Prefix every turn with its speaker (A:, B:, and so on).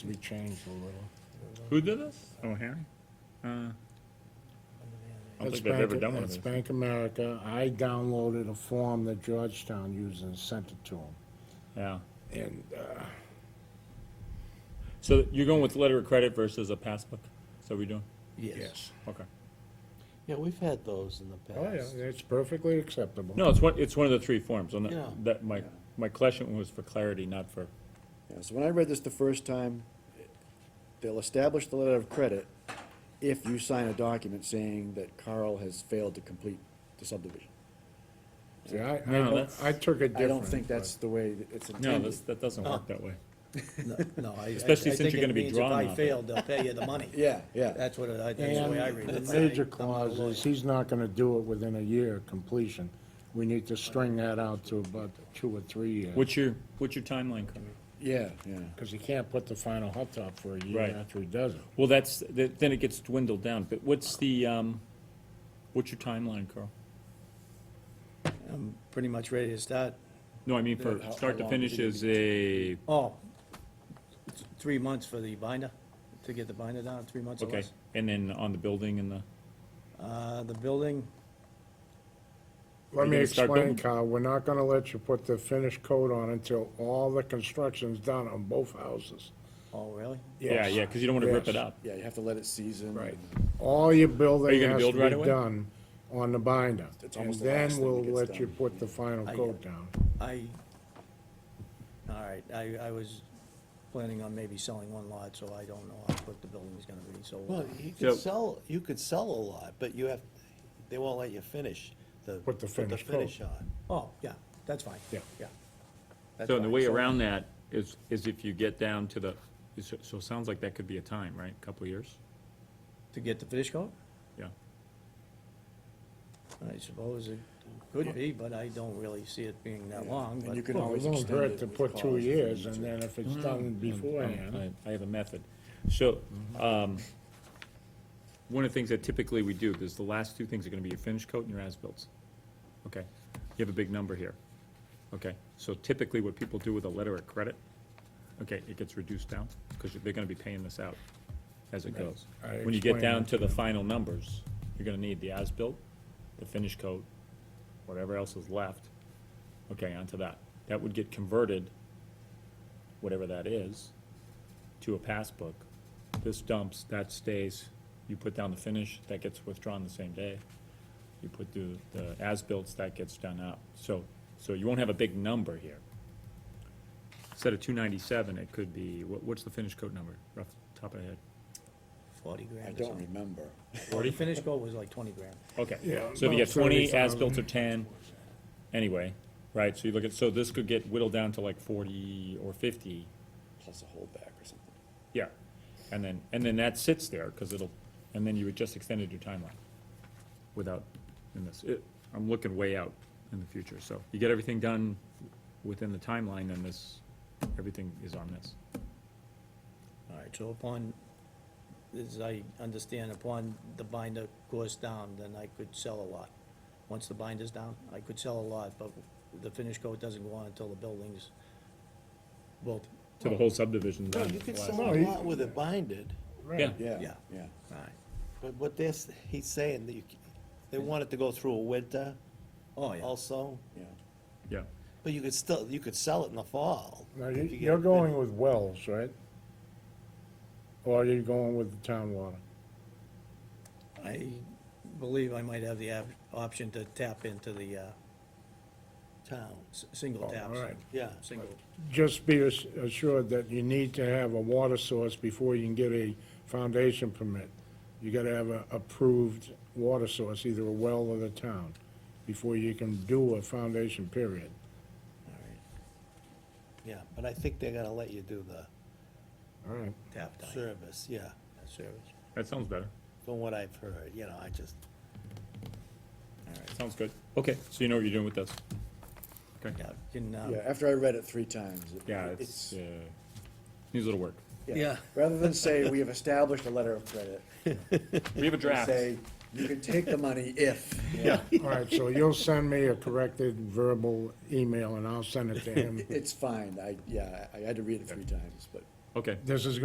A: We changed a little.
B: Who did this? Oh, Harry? Uh, I don't
A: It's
B: think I've ever
A: Bank-
B: done one of
A: It's
B: these.
A: Bank America. I downloaded a form that Georgetown used and sent it to them.
B: Yeah.
A: And, uh,
B: So you're going with letter of credit versus a passbook? Is that what you're doing?
A: yes.
B: Okay.
C: Yeah, we've had those in the
A: Oh, yeah,
C: past.
A: it's perfectly acceptable.
B: No, it's one, it's one of the three forms. I'm not-
C: Yeah.
B: That, my, my question was for clarity, not for,
D: Yeah, so when I read this the first time, they'll establish the letter of credit if you sign a document saying that Carl has failed to complete the subdivision.
A: See, I, I
B: No,
A: don't-
B: that's-
A: I took it different.
D: I don't think
A: but-
D: that's the way that it's
B: no,
D: intended.
B: that's, that doesn't
D: uh,
B: work that way.
C: No, No, I, I I
B: Especially since
C: think
B: you're gonna
C: it
B: be
C: means if
B: drawn
C: I
B: on it.
C: failed, they'll pay you the money.
D: Yeah, yeah,
C: That's what, I- that's the way I read
A: And the
C: it.
A: major clause is he's not gonna do it within a year of completion. We need to string that out to about two or three years.
B: What's your, what's your timeline coming?
D: yeah, yeah.
A: Because he can't put the final hot top for a year
B: Right.
A: after he does it.
B: Well, that's, th- then it gets dwindled down, but what's the, um, what's your timeline, Carl?
C: I'm pretty much ready to start.
B: No, I mean, for
D: How- how
B: start to
D: long is
B: finish
D: it
B: is a,
C: Oh, it's three months for the binder, to get the binder down, three months or
B: okay,
C: less.
B: and then on the building and the,
C: Uh, the building,
A: Let
B: You
A: me
B: gonna start
A: explain,
B: building?
A: Kyle, we're not gonna let you put the finished coat on until all the construction's done on both houses.
C: oh, really?
B: yeah,
A: Yes.
B: yeah, because you don't want to rip it
A: Yes.
B: up.
D: Yeah, you have to let it season.
A: Right. All your
B: Are you
A: building
B: gonna
A: has to
B: build right
A: be
B: away?
A: done on the binder.
D: It's
A: And
D: almost the last
A: then
D: thing that
A: we'll
D: gets
A: let you
D: done.
A: put the final
C: I-
A: coat down.
C: I, all right, I, I was planning on maybe selling one lot, so I don't know how quick the building's gonna be, so.
E: Well, you
B: So-
E: could sell, you could sell a lot, but you have, they won't let you finish the.
A: Put the finish coat.
E: finish on.
C: Oh, yeah, that's fine.
A: Yeah.
C: Yeah. That's
B: So the
C: fine.
B: way around that is, is if you get down to the, so, so it sounds like that could be a time, right? A Couple of years?
C: To get the finish coat?
B: Yeah.
C: I suppose it could be, but I don't really see it being that long,
D: And
C: but.
D: you can
A: Well, it
D: always
A: won't
D: extend
A: hurt
D: it
A: to
D: with
A: put two
D: calls if you
A: years,
D: need
A: and
D: to. Mm.
A: then if it's done beforehand,
B: Um, I, I have a method. So, um, one of the things that typically we do, is the last two things are gonna be your finish coat and your as-bills. Okay, you have a big number here. Okay, so typically what people do with a letter of credit, okay, it gets reduced down, because they're gonna be paying this out as it goes.
A: I
B: When you get
A: explained
B: down
A: that
B: to the final numbers, you're gonna need the as-built, the finish coat, whatever else is left, okay, onto that. That would get converted, whatever that is, to a passbook. This dumps, that stays, you put down the finish, that gets withdrawn the same day. You put the, the as-bills, that gets done out. So, so you won't have a big number here. Instead of two ninety-seven, it could be, what, what's the finish coat number, rough top of the head?
C: Forty grand
D: I
C: or
D: don't
C: something.
D: remember.
C: The finish coat was like twenty grand.
B: Okay,
A: Yeah,
B: so if you get
A: about
B: twenty
A: 30,000.
B: as-built or ten, anyway, right, so you look at, so this could get whittled down to like forty or fifty,
D: Plus a holdback or something.
B: yeah. And then, and then that sits there, because it'll, and then you would just extended your timeline without, in this, it, I'm looking way out in the future, so you get everything done within the timeline, then this, everything is on this.
C: All right, so upon, as I understand, upon the binder goes down, then I could sell a lot. Once the binder's down, I could sell a lot, but the finish coat doesn't go on until the building's built.
B: To the whole subdivision.
E: No,
B: done.
E: you could
B: Last-
E: sell
A: No,
E: a
A: you-
E: lot with it binded,
B: Yeah,
D: Yeah,
C: Yeah.
D: yeah.
C: All right.
E: but what this, he's saying that you, c- they want it to go through a winter
C: Oh, yeah.
E: also,
D: Yeah,
B: yeah,
E: but you could still, you could sell it in the fall.
A: Now,
E: if
A: you-
E: you get
A: you're
E: it
A: going
E: finished.
A: with Wells, right? Or you're going with the town water?
C: I believe I might have the op- option to tap into the, uh,
E: Town,
C: s- single
A: Oh,
C: taps.
A: all right.
E: yeah.
C: Single.
A: Just be ass- assured that you need to have a water source before you can get a foundation permit. You gotta have a approved water source, either a well or the town, before you can do a foundation period.
E: All right. Yeah, but I think they're gonna let you do the
A: All right,
C: Tap time.
E: service, yeah,
C: Service.
B: that sounds better.
E: from what I've heard, you know, I just,
B: Sounds good. Okay, so you know what you're doing with this. Okay.
C: Yeah, can, uh,
D: yeah, after I read it three times. it-
B: Yeah, it's, uh, needs a little work.
E: Yeah.
D: Rather than say, we have established a letter of credit,
B: We have a
D: we say, you can take the money if. Yeah.
A: all right, so you'll send me a corrected verbal email and I'll send it to him.
D: It's fine, I, yeah, I I had to read it three times, but.
B: Okay.
A: This is